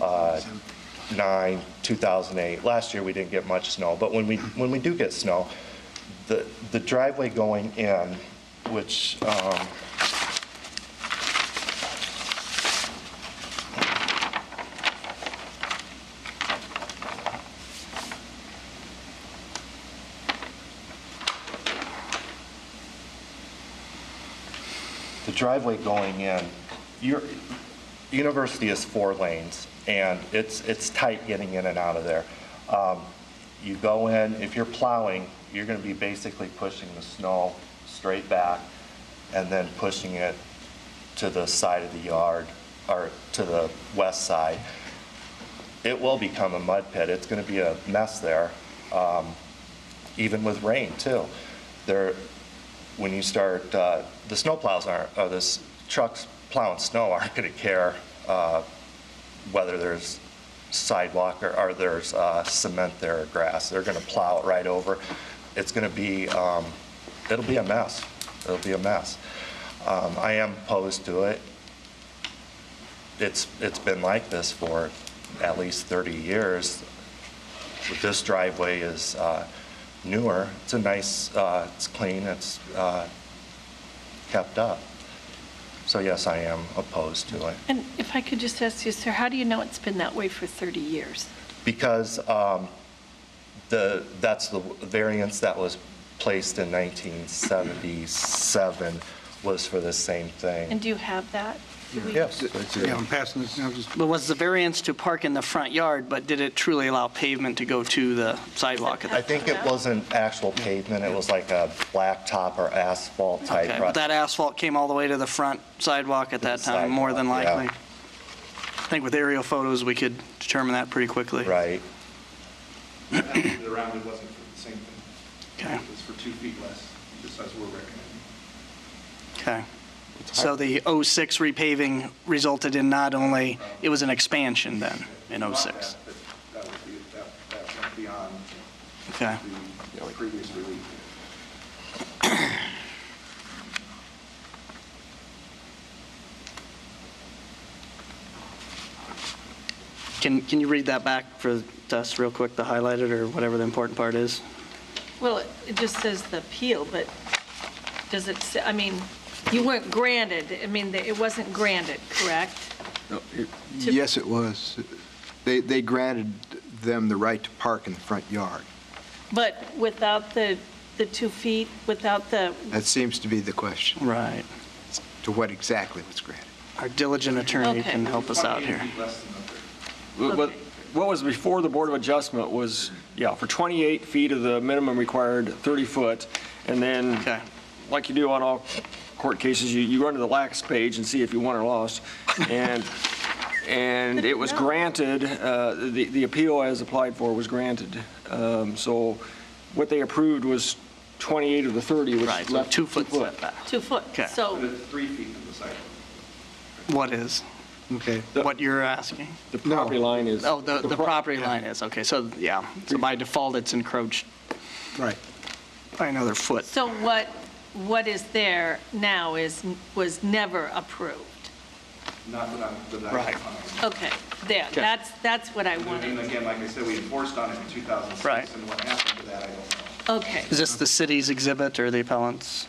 uh, 9, 2008. Last year, we didn't get much snow, but when we, when we do get snow, the the driveway going in, which, um, the driveway going in, your, university is four lanes, and it's, it's tight getting in and out of there. Um, You go in, if you're plowing, you're gonna be basically pushing the snow straight back and then pushing it to the side of the yard, or to the west side. It will become a mud pit, it's gonna be a mess there, um, even with rain, too. There, when you start, uh, the snowplows aren't, or the s- trucks plowing snow aren't going to care uh, whether there's sidewalk or, or there's uh, cement there or grass. They're going to plow it right over. It's going to be, um, it'll be a mess. It'll be a mess. Um, I am opposed to it. It's, it's been like this for at least 30 years this driveway is uh, newer. It's a nice, uh, it's clean, it's uh, kept up. So yes, I am opposed to it. And if I could just ask you, sir, how do you know it's been that way for 30 years? Because um, the, that's the variance that was placed in 1977 was for the same And thing. do you have that? Do we- Yes. Yeah, I'm passing this now, just, But was the variance to park in the front yard, but did it truly allow pavement to go to the sidewalk at I that? think it wasn't actual pavement, it was like a blacktop or asphalt type. Okay, road. but that asphalt came all the way to the front sidewalk at that the time, more than sidewalk, yeah. likely. I think with aerial photos, we could determine that pretty quickly. Right. rounded around, it wasn't for the same thing. Okay. It was for two feet less, just as we're recommending. Okay. So the 06 repaving resulted in not only, it was an expansion then, in Not 06? that, but That was the, that, that went beyond Okay. the previous relief. Can, can you read that back for us real quick, the highlighted or whatever the important part is? Well, it- it just says the appeal, but does it, say- I mean, you weren't granted, I mean, it wasn't granted, correct? no, it- To- yes, it was. They, they granted them the right to park in the front yard. But without the, the two feet, without the, That seems to be the question, Right. to what exactly was granted. Our diligent attorney Okay. can help us out here. What- What what was before the Board of Adjustment was, yeah, for 28 feet of the minimum required 30-foot, and then, Okay. like you do on all court cases, you, you run to the lax page and see if you won or lost. And, and it was granted, uh, the, the appeal as applied for was granted. Um, So what they approved was 28 of the 30, which Right, left so two-foot foot. setback. two foot? Okay. But So, it's three feet from the sidewalk. What is, Okay. The- what you're asking? The property line is. Oh, the, the pro- property line is, okay, so, yeah, so by default, it's encroached Right. by another foot. so what, what is there now is, was never approved? Not that I'm, that I Right. can find. Okay, there, that's, that's what I And wanted. again, like I said, we enforced on it in 2006. Right. And what happened to that, I don't know. Okay. Is this the city's exhibit or the appellant's,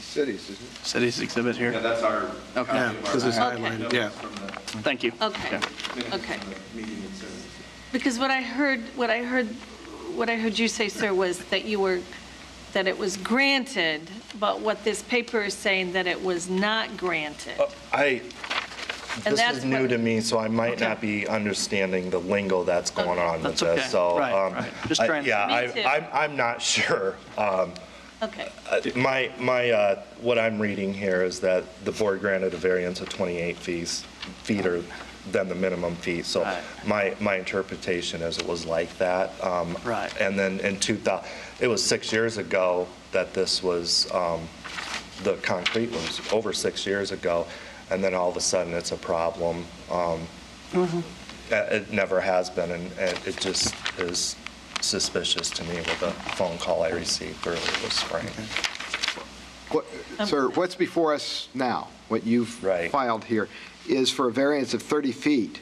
Cities, isn't it? city's exhibit Yeah, here? that's our. Okay. copy of Yeah, our 'cause it's Okay. highlighted, notes yeah. From the Thank you. Okay, minutes okay. from the meeting in Sarah. Because what I heard, what I heard, what I heard you say, sir, was that you were, that it was granted, but what this paper is saying, that it was not granted. I, And this that's is new what- to me, so I might not be understanding the lingo that's going on with That's okay. this, so. Right, um, right. Just I- trying to- Yeah, Me I- too. I'm, I'm not sure. Um, Okay, uh, My, my, uh, what I'm reading here is that the board granted a variance of 28 fees, feet or than the minimum fee. So Right. my, my interpretation is it was like that. Um, Right. And then in 2000, it was six years ago that this was, um, the concrete was over six years ago, and then all of a sudden it's a problem. Um, Mm-hmm. uh, It never has been, and and it just is suspicious to me with a phone call I received earlier this spring. What- Sir, what's before us now, what you've Right. filed here, is for a variance of 30 feet